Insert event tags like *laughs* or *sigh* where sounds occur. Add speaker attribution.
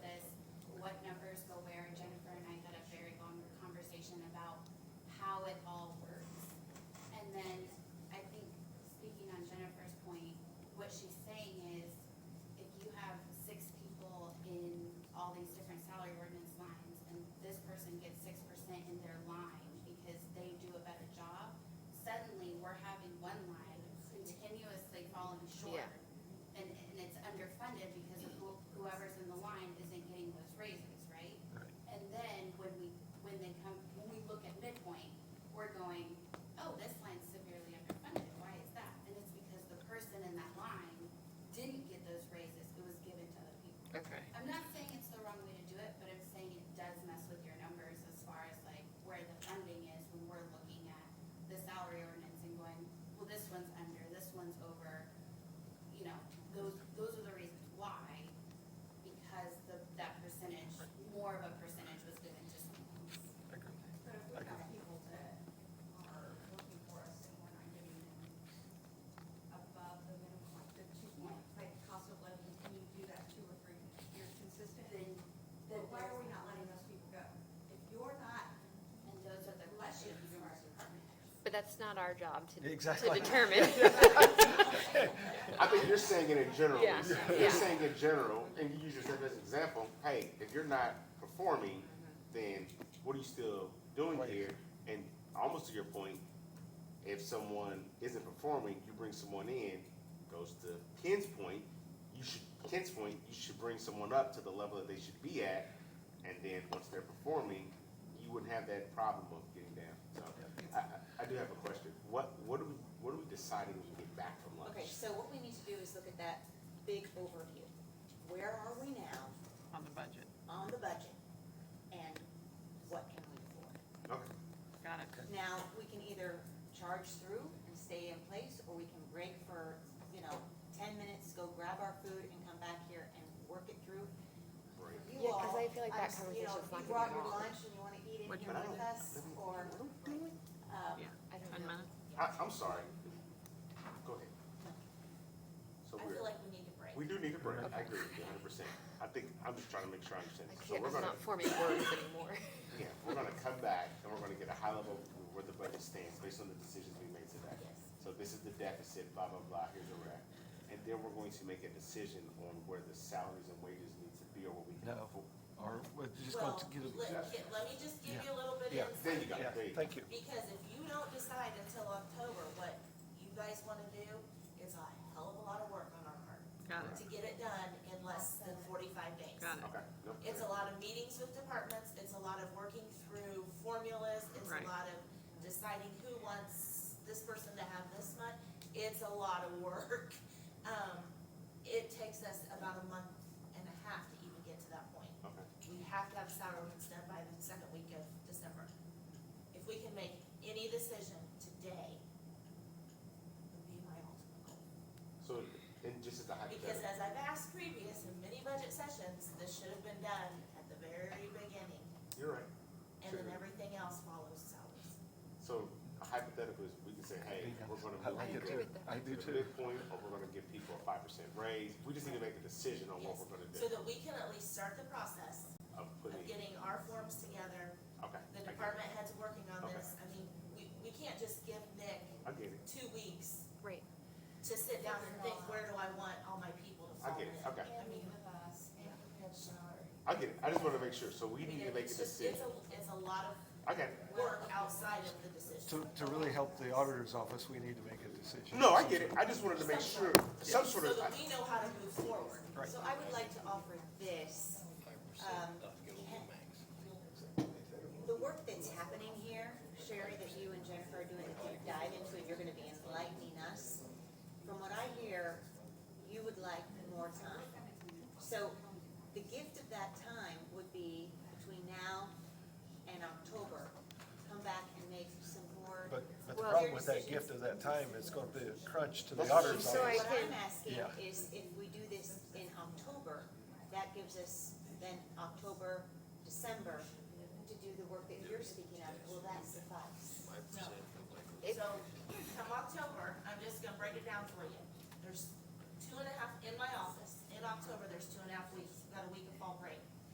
Speaker 1: fire ordinance lines, and this person gets six percent in their line because they do a better job, suddenly we're having one line continuously falling short.
Speaker 2: Yeah.
Speaker 1: And, and it's underfunded because of who- whoever's in the line isn't getting those raises, right?
Speaker 3: Right.
Speaker 1: And then when we, when they come, when we look at midpoint, we're going, oh, this line's severely underfunded, why is that? And it's because the person in that line didn't get those raises, it was given to other people.
Speaker 2: Okay.
Speaker 1: I'm not saying it's the wrong way to do it, but I'm saying it does mess with your numbers as far as like where the funding is when we're looking at the salary ordinance and going, well, this one's under, this one's over. You know, those, those are the reasons why, because the, that percentage, more of a percentage was given to someone else.
Speaker 3: I agree.
Speaker 4: But if we have people that are working for us and we're not giving them above the minimum, like the two point, like cost of living, can you do that two or three years consistent?
Speaker 1: Then,
Speaker 4: Then why are we not letting those people go? If you're not,
Speaker 1: and those are the questions for our department heads.
Speaker 2: But that's not our job to, to
Speaker 3: Exactly.
Speaker 2: determine.
Speaker 5: I think you're saying it in general.
Speaker 2: Yeah, yeah.
Speaker 5: You're saying in general, and you use yourself as an example, hey, if you're not performing, then what are you still doing
Speaker 3: Right.
Speaker 5: here? And almost to your point, if someone isn't performing, you bring someone in, goes to Ken's point, you should, Ken's point, you should bring someone up to the level that they should be at, and then once they're performing, you wouldn't have that problem of getting down. So, I, I, I do have a question. What, what are we, what are we deciding when we get back from lunch?
Speaker 6: Okay, so what we need to do is look at that big overview. Where are we now
Speaker 7: on the budget.
Speaker 6: on the budget? And what can we afford?
Speaker 5: Okay.
Speaker 7: Got it.
Speaker 6: Now, we can either charge through and stay in place, or we can break for, you know, ten minutes, go grab our food and come back here and work it through.
Speaker 5: Right.
Speaker 6: You
Speaker 2: Yeah, 'cause
Speaker 6: all,
Speaker 2: I feel like
Speaker 6: I'm
Speaker 2: that
Speaker 6: s- you know,
Speaker 2: conversation's
Speaker 6: if
Speaker 2: not
Speaker 6: You
Speaker 2: gonna
Speaker 6: brought
Speaker 2: be
Speaker 6: your
Speaker 2: long.
Speaker 6: lunch and you wanna eat it
Speaker 7: Would
Speaker 6: here
Speaker 5: you-
Speaker 6: with us, or, um,
Speaker 7: Yeah.
Speaker 2: I don't
Speaker 7: Ten
Speaker 2: know.
Speaker 7: minutes?
Speaker 5: I, I'm sorry. Go ahead. So
Speaker 6: I
Speaker 5: we're,
Speaker 6: feel like we need a break.
Speaker 5: we do need a break. I agree with you hundred percent. I think, I'm just trying to make sure I understand.
Speaker 2: I
Speaker 5: So
Speaker 2: can't,
Speaker 5: we're
Speaker 2: I'm
Speaker 5: gonna,
Speaker 2: not forming words anymore.
Speaker 5: yeah, we're gonna come back and we're gonna get a high level of where the budget stands based on the decisions we made today.
Speaker 6: Yes.
Speaker 5: So this is the deficit, blah, blah, blah, here's a rack. And then we're going to make a decision on where the salaries and wages need to be or what we can
Speaker 3: No.
Speaker 5: afford.
Speaker 3: Or we're just going
Speaker 6: Well,
Speaker 3: to get it.
Speaker 6: let, get- let me just give
Speaker 3: Yeah.
Speaker 6: you a little bit
Speaker 3: Yeah.
Speaker 6: of
Speaker 5: There you
Speaker 6: insight.
Speaker 5: go,
Speaker 3: Yeah,
Speaker 5: there you go.
Speaker 3: thank you.
Speaker 6: Because if you don't decide until October what you guys wanna do, it's a hell of a lot of work on our part
Speaker 7: Got it,
Speaker 6: to get it done in less than forty-five days.
Speaker 7: got it.
Speaker 5: Okay. no,
Speaker 6: It's a lot of meetings with departments, it's a lot of working through formulas, it's
Speaker 7: Right.
Speaker 6: a lot of deciding who wants this person to have this much. It's a lot of work. *laughs* Um, it takes us about a month and a half to even get to that point
Speaker 5: Okay.
Speaker 6: we have to have salary ordinance done by the second week of December. If we can make any decision today, would be my ultimate goal.
Speaker 5: So, and just as a hypothetical.
Speaker 6: Because as I've asked previous in many budget sessions, this should have been done at the very beginning,
Speaker 5: You're right.
Speaker 6: and then
Speaker 5: Sure.
Speaker 6: everything else follows salaries.
Speaker 5: So a hypothetical is we can say, hey, we're gonna
Speaker 3: I
Speaker 5: move
Speaker 3: like it
Speaker 5: people
Speaker 2: agree
Speaker 3: too.
Speaker 2: with that.
Speaker 3: I do
Speaker 5: to the
Speaker 3: too.
Speaker 5: midpoint, or we're gonna give people a five percent raise. We just need to make a decision on what
Speaker 6: Yes.
Speaker 5: we're gonna
Speaker 6: So
Speaker 5: do
Speaker 6: that we can at least start the process
Speaker 5: of
Speaker 6: of
Speaker 5: putting, okay.
Speaker 6: getting our forms together, the
Speaker 5: I get it.
Speaker 6: department heads working on
Speaker 5: Okay.
Speaker 6: this. I mean, we, we can't just give Nick
Speaker 5: I get it,
Speaker 6: two weeks
Speaker 2: Right.
Speaker 6: to sit down and think, where do I want all my people to
Speaker 5: I
Speaker 6: fall
Speaker 5: get
Speaker 6: in?
Speaker 5: it, okay.
Speaker 4: and meet with us, and prepare the salary.
Speaker 5: I get it. I just wanna make sure. So we
Speaker 6: I mean,
Speaker 5: need to make a
Speaker 6: it's just- it's
Speaker 5: decision.
Speaker 6: a- It's a lot of
Speaker 5: I got it.
Speaker 6: work outside of the decision.
Speaker 3: To, to really help the auditor's office, we need to make a decision.
Speaker 5: No, I get it. I just wanted to make sure, some sort
Speaker 6: So
Speaker 5: of,
Speaker 6: that we know how to move forward.
Speaker 3: Right.
Speaker 6: So I would like to offer this. um, The work that's happening here, Sherry, that you and Jennifer are doing, that you dive into, and you're gonna be enlightening us. From what I hear, you would like more time. So the gift of that time would be between now and October, come back and make some more.
Speaker 3: But, but the
Speaker 2: Well,
Speaker 3: problem with that
Speaker 6: decisions.
Speaker 3: gift of that time, it's gonna be a crunch to the
Speaker 5: That's what
Speaker 3: auditor's
Speaker 5: she said.
Speaker 2: So I
Speaker 3: office.
Speaker 6: What I'm asking
Speaker 3: Yeah.
Speaker 6: is if we do this in October, that gives us then October, December to do the work that you're speaking of, will that suffice?
Speaker 2: If-
Speaker 6: So, come October, I'm just gonna break it down for you. There's two and a half in my office in October